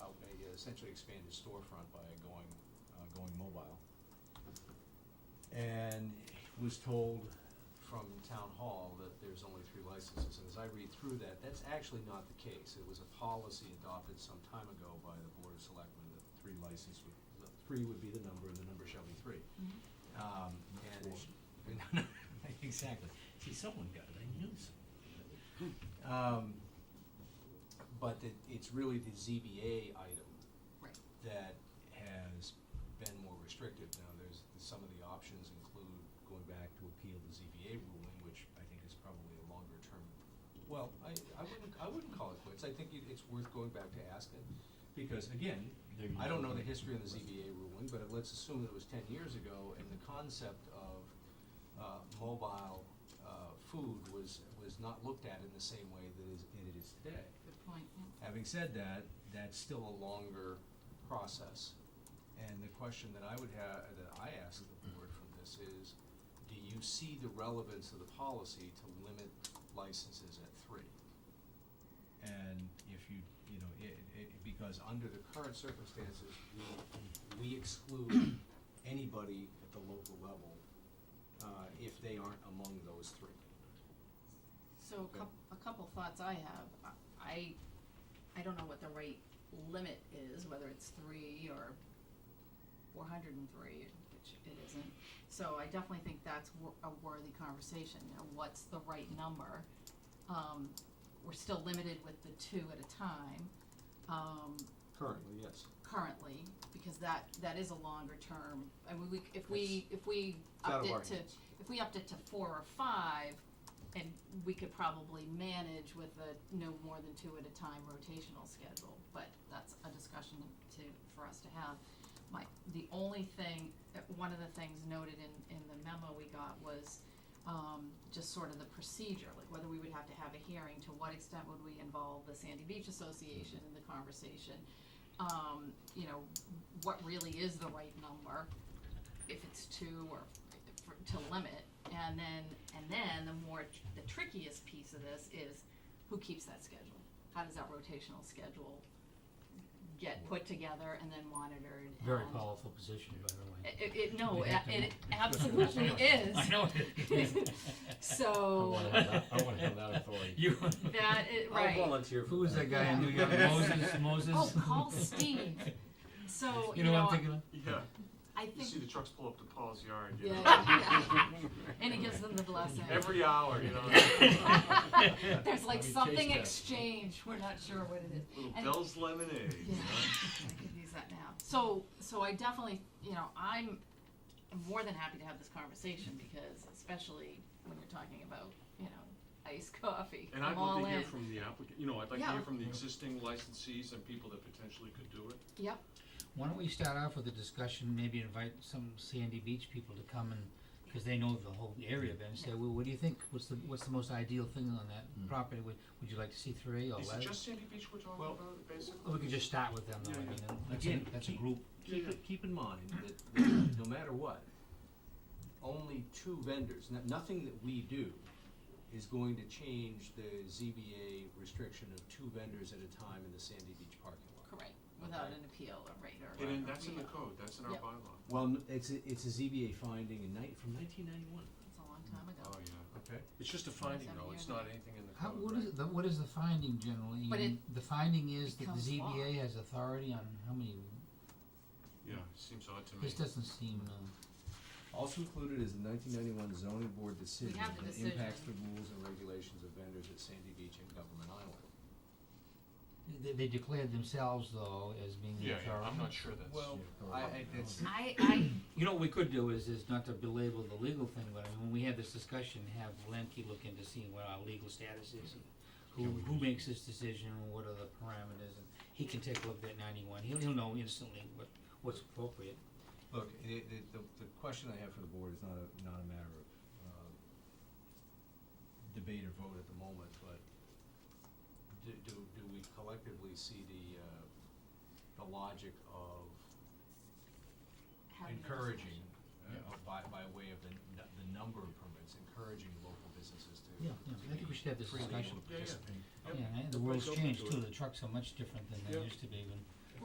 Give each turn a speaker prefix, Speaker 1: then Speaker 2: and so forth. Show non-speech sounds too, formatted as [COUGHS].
Speaker 1: uh, essentially expand his storefront by going, uh, going mobile. And was told from town hall that there's only three licenses, and as I read through that, that's actually not the case. It was a policy adopted some time ago by the Board of Selectmen that three license would, that three would be the number, and the number shall be three.
Speaker 2: Mm-hmm.
Speaker 1: Um, and, [LAUGHS] exactly. See, someone got it, I knew someone. got it. Um, but it, it's really the ZBA item
Speaker 2: Right.
Speaker 1: that has been more restrictive. Now, there's, some of the options include going back to appeal the ZBA ruling, which I think is probably a longer term. Well, I, I wouldn't, I wouldn't call it quits. I think it, it's worth going back to Aspen, because again,
Speaker 3: There you
Speaker 1: I don't
Speaker 3: go.
Speaker 1: know the history of the ZBA ruling, but let's assume that it was ten years ago, and the concept of, uh, mobile, uh, food was, was not looked at in the same way that is, it is today.
Speaker 2: Good point, yeah.
Speaker 1: Having said that, that's still a longer process. And the question that I would have, that I ask the board from this is, do you see the relevance of the policy to limit licenses at three? And if you, you know, it, it, because under the current circumstances, we, we exclude anybody at the local level, uh, if they aren't among those three.
Speaker 2: So a
Speaker 1: Okay.
Speaker 2: coup- a couple thoughts I have, I- I, I don't know what the right limit is, whether it's three or four hundred and three, which it isn't. So I definitely think that's wor- a worthy conversation, you know, what's the right number? Um, we're still limited with the two at a time, um,
Speaker 1: Currently, yes.
Speaker 2: currently, because that, that is a longer term, I mean, we, if we, if we
Speaker 1: It's out
Speaker 2: upped
Speaker 1: of our
Speaker 2: it to,
Speaker 1: hands.
Speaker 2: if we upped it to four or five, and we could probably manage with a no more than two at a time rotational schedule, but that's a discussion to, for us to have. My, the only thing, uh, one of the things noted in, in the memo we got was, um, just sort of the procedure, like whether we would have to have a hearing, to what extent would we involve the Sandy Beach Association in the conversation? Um, you know, what really is the right number, if it's two or for, to limit, and then, and then the more, tr- the trickiest piece of this is who keeps that schedule? How does that rotational schedule get put together and then monitored and?
Speaker 3: Very powerful position, by the way.
Speaker 2: It, it, no,
Speaker 3: We have to-
Speaker 2: it
Speaker 3: [LAUGHS]
Speaker 2: absolutely is.
Speaker 3: I know it is. [LAUGHS]
Speaker 2: So,
Speaker 3: I wanna have
Speaker 4: that- I wanna have that authority.
Speaker 3: You.
Speaker 2: that, it, right.
Speaker 4: I'll volunteer for
Speaker 3: Who was that guy in New
Speaker 2: Yeah.
Speaker 3: York?
Speaker 2: [LAUGHS]
Speaker 3: Moses, Moses?
Speaker 2: Oh, call
Speaker 3: [LAUGHS]
Speaker 2: Steve. So,
Speaker 3: You know what I'm thinking of?
Speaker 5: Yeah,
Speaker 2: I
Speaker 5: you see the
Speaker 2: think,
Speaker 5: trucks pull up to Paul's yard, you [LAUGHS]
Speaker 2: yeah, [LAUGHS]
Speaker 3: [LAUGHS]
Speaker 5: know.
Speaker 2: yeah. and he gives them the blessing.
Speaker 5: Every hour,
Speaker 2: [LAUGHS]
Speaker 5: you know.
Speaker 2: There's
Speaker 4: Let me
Speaker 2: like
Speaker 4: taste
Speaker 2: something
Speaker 4: that.
Speaker 2: exchange, we're not sure what it is.
Speaker 5: Little
Speaker 2: And-
Speaker 5: Bell's lemonade. you
Speaker 2: Yeah,
Speaker 5: know.
Speaker 2: I could use that now. So, so I definitely, you know, I'm more than happy to have this conversation because especially when you're talking about, you know, iced coffee,
Speaker 5: And I'd
Speaker 2: I'm
Speaker 5: love
Speaker 2: all
Speaker 5: to hear
Speaker 2: in.
Speaker 5: from the applicant, you know, I'd like to hear
Speaker 2: Yeah.
Speaker 5: from the existing licensees and people that potentially could do it.
Speaker 2: Yep,
Speaker 3: Why don't we start off with a discussion, maybe invite some Sandy Beach people to come and, cause they know the whole area, then say,
Speaker 2: Yeah.
Speaker 3: well, what do you think? What's the, what's the most ideal thing on that property? Would, would you like to see three or
Speaker 5: Hmm. Is
Speaker 3: less?
Speaker 5: it just Sandy Beach we're talking
Speaker 1: Well-
Speaker 5: about, basically?
Speaker 3: Or we could just start with them though, I
Speaker 5: Yeah, yeah.
Speaker 3: mean, that's a,
Speaker 1: Again,
Speaker 3: that's a
Speaker 1: keep-
Speaker 3: group.
Speaker 1: keep, it- keep in mind that, that no matter what, only two vendors, no- nothing that we do is going to change the ZBA restriction of two vendors at a time in the Sandy Beach parking lot.
Speaker 2: correct, without
Speaker 1: Okay.
Speaker 2: an appeal or rate or.
Speaker 5: And then that's in the
Speaker 2: Yeah,
Speaker 5: code, that's in our
Speaker 2: Yeah.
Speaker 5: bylaw.
Speaker 1: Well, n- it's, a- it's a ZBA finding in night, from nineteen ninety-one.
Speaker 2: It's a long time ago.
Speaker 5: Oh, yeah.
Speaker 1: Okay.
Speaker 5: It's just a finding though, it's not anything in the
Speaker 3: How,
Speaker 5: code,
Speaker 3: what
Speaker 5: right?
Speaker 3: is, the, what is the finding generally?
Speaker 2: But
Speaker 3: And The finding is that the
Speaker 2: becomes law.
Speaker 3: ZBA has authority on how many,
Speaker 5: Yeah, it seems odd to me.
Speaker 3: this doesn't seem, uh.
Speaker 1: Also included is the nineteen ninety-one zoning board decision
Speaker 2: have the
Speaker 1: that impacts the
Speaker 2: decision.
Speaker 1: rules and regulations of vendors at Sandy Beach and Government Island.
Speaker 3: They, they declared themselves though as being the
Speaker 5: Yeah,
Speaker 3: authority.
Speaker 5: yeah, I'm not sure that's.
Speaker 1: Well,
Speaker 3: yeah,
Speaker 1: I, I,
Speaker 3: correct.
Speaker 5: Oh.
Speaker 1: it's,
Speaker 2: I, [COUGHS] I,
Speaker 3: You know, what we could do is, is not to belabor the legal thing, but I mean, when we have this discussion, have Lemke look into seeing what our legal status is. and Who, who makes this decision, and what are the parameters, and he can take a look at ninety-one, he'll, he'll know instantly what, what's appropriate.
Speaker 1: Look, the, the, the, the question I have for the board is not a, not a matter of, uh, debate or vote at the moment, but do, do, do we collectively see the, uh, the logic of
Speaker 2: having a
Speaker 1: encouraging,
Speaker 2: discussion.
Speaker 1: uh, by, by way of the, n- the number of permits, encouraging local businesses to,
Speaker 3: Yeah,
Speaker 1: to
Speaker 3: yeah, I think we
Speaker 1: be
Speaker 3: should have this
Speaker 1: freely able to
Speaker 3: discussion.
Speaker 5: Yeah, yeah.
Speaker 1: participate?
Speaker 3: Yeah, and the world's
Speaker 5: Everybody's open
Speaker 3: changed
Speaker 5: to
Speaker 3: too,
Speaker 5: it.
Speaker 3: the trucks are much different than they
Speaker 5: Yeah.
Speaker 3: used to be when